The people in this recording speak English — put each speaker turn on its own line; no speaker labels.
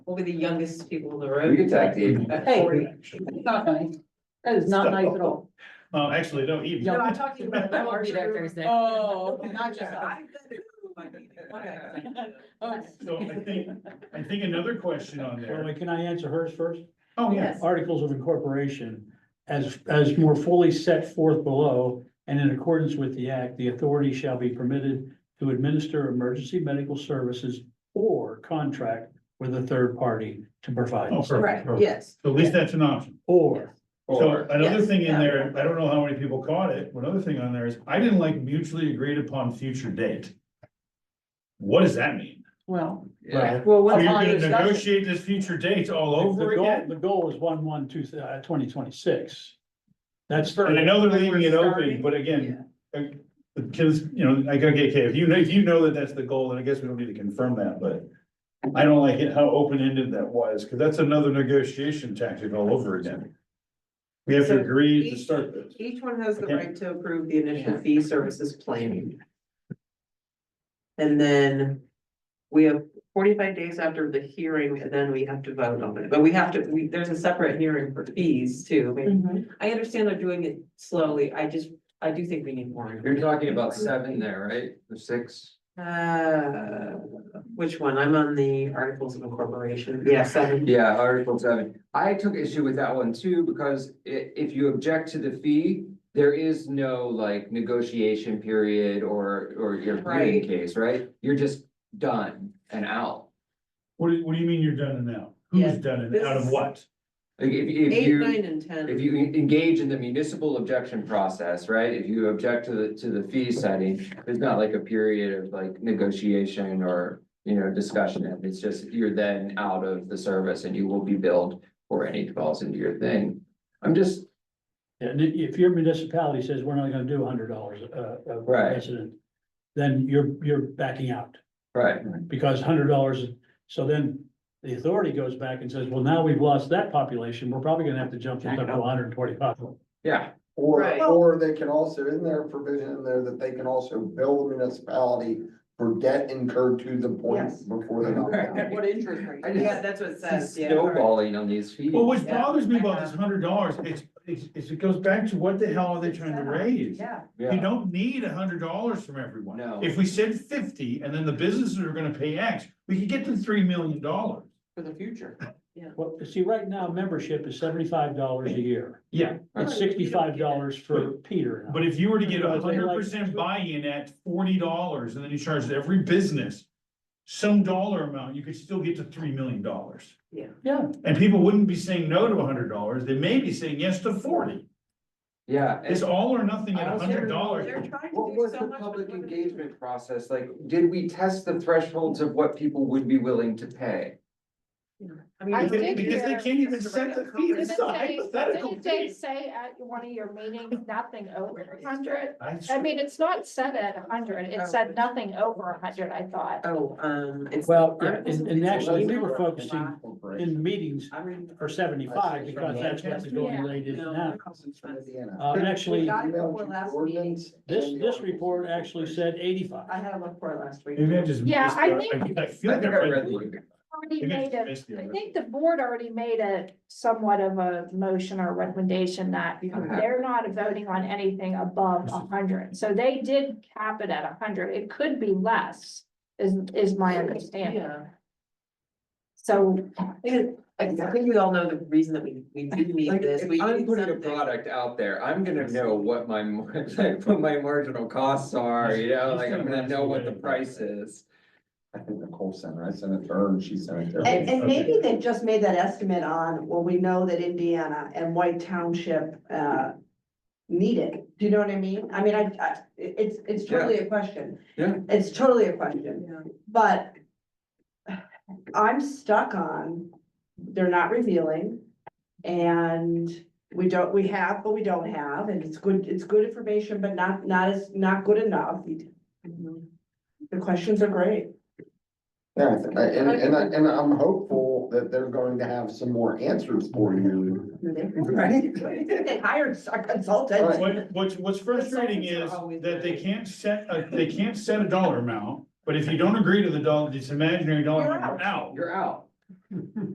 We'll be the youngest people in the
We
room.
Oh, can tag team.
At
Hey.
40.
It's not nice. That is not nice at all.
Uh, actually, no, even.
No,
I'm talking about.
I won't be there Thursday.
Oh, not just us.
I've been to my meeting. Okay.
Us.
So I think, I think another question on
Well,
there.
wait, can I answer hers first?
Oh, yeah.
Yes.
Articles of incorporation, as, as more fully set forth below and in accordance with the act, the authority shall be permitted to administer emergency medical services or contract with a third party to provide.
Oh, perfect,
Right,
perfect.
yes.
So at least that's an option.
Or,
So
Or,
another
Yes,
thing in
yeah.
there, I don't know how many people caught it, but another thing on there is, I didn't like mutually agreed upon future date. What does that mean?
Well,
yeah,
well,
So
what's
you're
on
gonna
the discussion?
negotiate this future date all
the
over
goal,
again?
the goal is one, one, two, uh, twenty twenty-six. That's.
And I know they're leaving it open,
starting.
but again, uh, because, you know, I gotta get, okay, if you know, if you know that that's the goal, then I guess we don't need to confirm that, but. I don't like it how open-ended that was, because that's another negotiation tactic all over again. We have to agree to start this.
Each one has the
Okay.
right to approve the initial fee services plan. And then we have forty-five days after the hearing, and then we have to vote on it, but we have to, we, there's a separate hearing for fees too. I mean,
Mhm.
I understand they're doing it slowly, I just, I do think we need more.
you're talking about seven there, right? Or six?
Uh, which one? I'm on the Articles of Incorporation, yeah, seven.
Yeah, Article seven. I took issue with that one too, because i- if you object to the fee, there is no like negotiation period or, or your
Right.
hearing case, right? You're just done and out.
What do, what do you mean you're done and out?
Yeah,
Who's done and out of
this-
what?
Like if, if
Eight,
you.
nine, and ten.
If you en- engage in the municipal objection process, right, if you object to the, to the fee setting, there's not like a period of like negotiation or, you know, discussion. It's just you're then out of the service and you will be billed for any falls into your thing. I'm just,
And i- if your municipality says, we're not gonna do hundred dollars a, a
Right.
resident, then you're, you're backing out.
right,
because hundred dollars, so then the authority goes back and says, well, now we've lost that population, we're probably gonna have to jump to
Back up.
hundred and twenty-five.
yeah,
Or,
Right.
or they can also, isn't there a provision in there that they can also bill the municipality for debt incurred to the
Yes.
point before they knock down?
At what interest rate?
I
Yeah,
just
that's what it says,
see
yeah. all right.
snowballing on these fees.
Well, what
Yeah,
bothers me
I
about this
know.
hundred dollars, it's, it's, it's- it goes back to what the hell are they trying to raise?
Yeah.
Yeah.
You don't need a hundred dollars from everyone.
No.
If we said fifty and then the businesses are gonna pay X, we could get to three million dollars.
For the future.
Well, see, right now, membership is seventy-five dollars a year,
Yeah,
it's sixty-five dollars for Peter.
but if you were to get a
Because they
hundred
like-
percent buy-in at forty dollars and then you charge every business. Some dollar amount, you could still get to three million dollars.
Yeah,
And people wouldn't be saying no to hundred dollars, they may be saying yes to forty.
Yeah. and-
It's all or nothing at
I also-
hundred
They're
dollars.
trying to
What
do
was
so
the
much with
public
limited-
engagement process? Like, did we test the thresholds of what people would be willing to pay?
I mean,
I
it's-
did
Because they
hear-
can't even set the fee,
Didn't
it's a
they,
hypothetical
didn't they
fee.
say at one of your meetings, nothing over a hundred?
I
I mean, it's not said at a hundred, it
Oh.
said nothing over a hundred, I thought.
Oh, um, it's.
Well, yeah,
Articles
and-
of
and actually, we were
Incorporation.
focusing- in meetings
I mean.
for seventy-five, because that's what the going rate is now. Uh, and
We
actually,
got it before last meeting.
this, this report actually said
I
eighty-five.
had a look for it last week.
Maybe I just.
Yeah,
missed
I
it.
think-
I feel
I
like
think I read the.
Already
think I
made
just
a,
missed the
I
other-
think the board already made a somewhat of a motion or recommendation that
Okay.
they're not voting on anything above a hundred. So they did cap it at a hundred, it could be less, is, is my understanding.
Yeah.
So,
I I think we all know the reason that we, we do need
Like,
this. We
if I'm
need
putting a
something.
product out there, I'm gonna know what my, mar- like, what my marginal costs are, you know, like, I'm gonna know what the price is.
I think Nicole sent her, I sent it to her and she sent it to
And,
her.
and maybe they've just made that estimate on, well, we know that Indiana and White Township, uh, need it. Do you know what I mean? I mean, I, I, it's, it's totally a question.
Yeah.
It's totally a question,
Yeah.
but I'm stuck on, they're not revealing. And we don't, we have, but we don't have, and it's good, it's good information, but not, not as, not good enough.
Mhm.
The questions are great.
Yeah, I think- and, and, I- and I'm hopeful that they're going to have some more answers for you.
Right? They hired a consultant.
What, what's, what's frustrating
Consultants are
is
always
that they
right.
can't set, a they can't set a dollar amount, but if you don't agree to the dollar, this imaginary dollar
You're
amount, you're out.
You're out.